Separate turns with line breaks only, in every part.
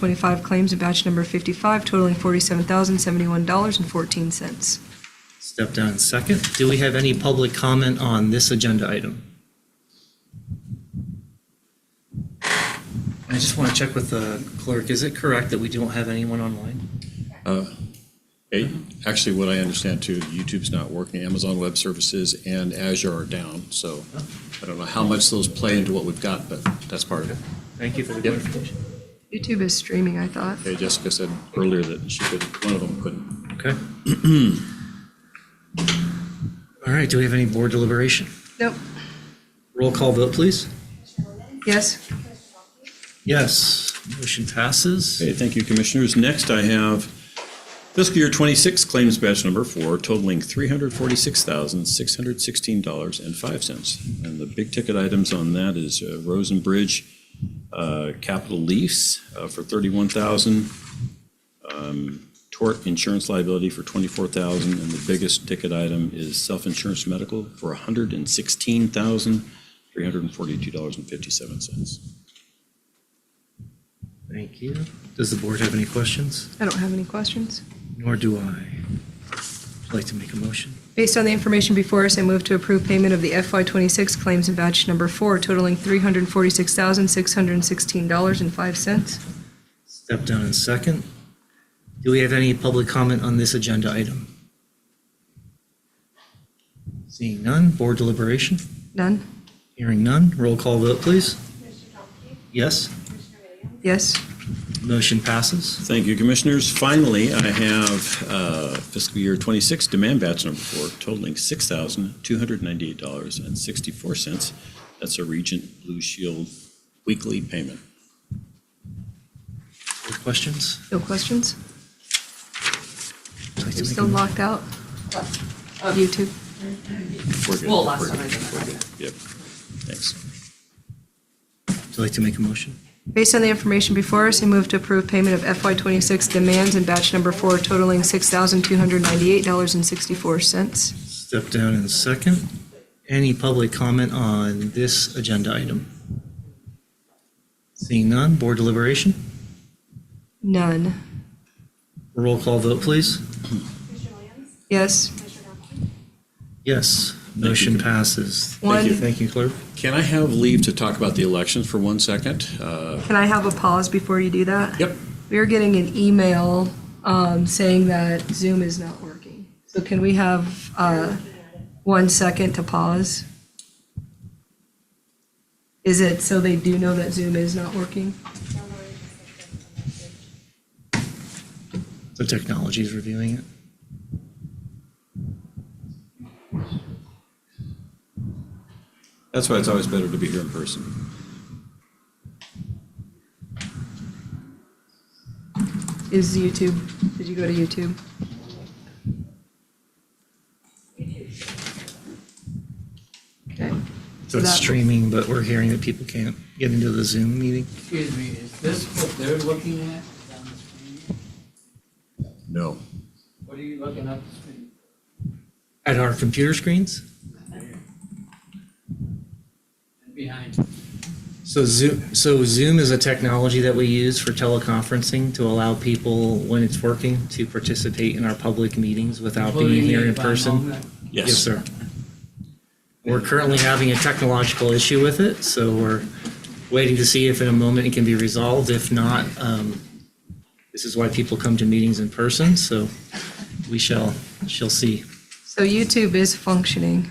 25 claims in batch number 55 totaling $47,071.14.
Step down second. Do we have any public comment on this agenda item? I just want to check with the clerk. Is it correct that we don't have anyone online?
Hey, Actually, what I understand too, YouTube's not working, Amazon Web Services and Azure are down, so I don't know how much those play into what we've got, but that's part of it.
Thank you for the
Yep.
clarification.
YouTube is streaming, I thought.
Hey, Jessica said earlier that she could, one of them couldn't.
Okay. All right, do we have any board deliberation?
Nope.
Roll call vote, please.
Yes?
Yes, motion passes.
Okay, thank you, Commissioners. Next, I have fiscal year 26 claims batch number four totaling $346,616.05. And the big ticket items on that is uh, Rosen Bridge uh, capital lease uh, for 31,000, um, tort insurance liability for 24,000, and the biggest ticket item is self-insurance medical for $116,342.57.
Thank you. Does the board have any questions?
I don't have any questions.
Nor do I. Would you like to make a motion?
Based on the information before us, I move to approve payment of the FY26 claims in batch number 4 totaling $346,616.05.
Step down in second. Do we have any public comment on this agenda item? Seeing none, board deliberation,
None?
hearing none, roll call vote, please. Yes,
Yes?
motion passes.
Thank you, Commissioners. Finally, I have uh, fiscal year 26 demand batch number four totaling $6,298.64. That's a Regent Blue Shield weekly payment.
Any Questions?
No questions?
Would you
You're
like to make a
still
mo-
locked out? YouTube?
We're good.
Well, last
We're
time I
good.
did
We're
that.
good. Yep. Thanks.
Would you like to make a motion?
Based on the information before us, I move to approve payment of FY26 demands in batch number four totaling $6,298.64.
Step down in second. Any public comment on this agenda item? Seeing none, board deliberation,
None.
roll call vote, please.
Yes?
Yes, motion passes. Thank you.
One-
Thank you, clerk.
Can I have leave to talk about the elections for one second? Uh,
Can I have a pause before you do that?
Yep.
We are getting an email um, saying that Zoom is not working. So can we have uh, one second to pause? Is it so they do know that Zoom is not working?
The technology is reviewing it.
That's why it's always better to be here in person.
Is YouTube, did you go to YouTube? Okay.
So it's
That-
streaming, but we're hearing that people can't get into the Zoom meeting.
Excuse me, is this what they're looking at on the screen?
No.
What are you looking up the screen?
At our computer screens?
And Behind you.
So Zoom, so Zoom is a technology that we use for teleconferencing to allow people, when it's working, to participate in our public meetings without being
Including
here in
by
person.
moment.
Yes, sir. We're currently having a technological issue with it, so we're waiting to see if in a moment it can be resolved. If not, um, this is why people come to meetings in person, so we shall, shall see.
So YouTube is functioning.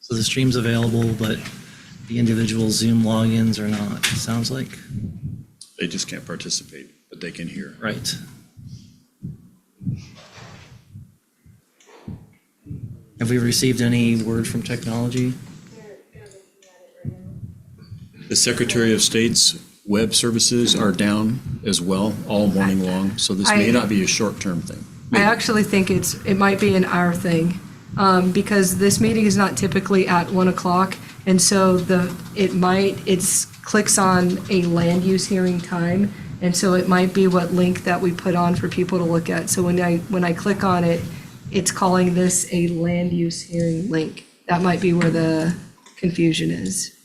So the stream's available, but the individual Zoom logins are not, it sounds like.
They just can't participate, but they can hear.
Right. Have we received any word from technology?
The Secretary of State's web services are down as well all morning long, so this may
I-
not be a short-term thing.
I actually think it's, it might be an hour thing, um, because this meeting is not typically at 1 o'clock, and so the, it might, it's, clicks on a land use hearing time, and so it might be what link that we put on for people to look at. So when I, when I click on it, it's calling this a land use hearing link. That might be where the confusion is.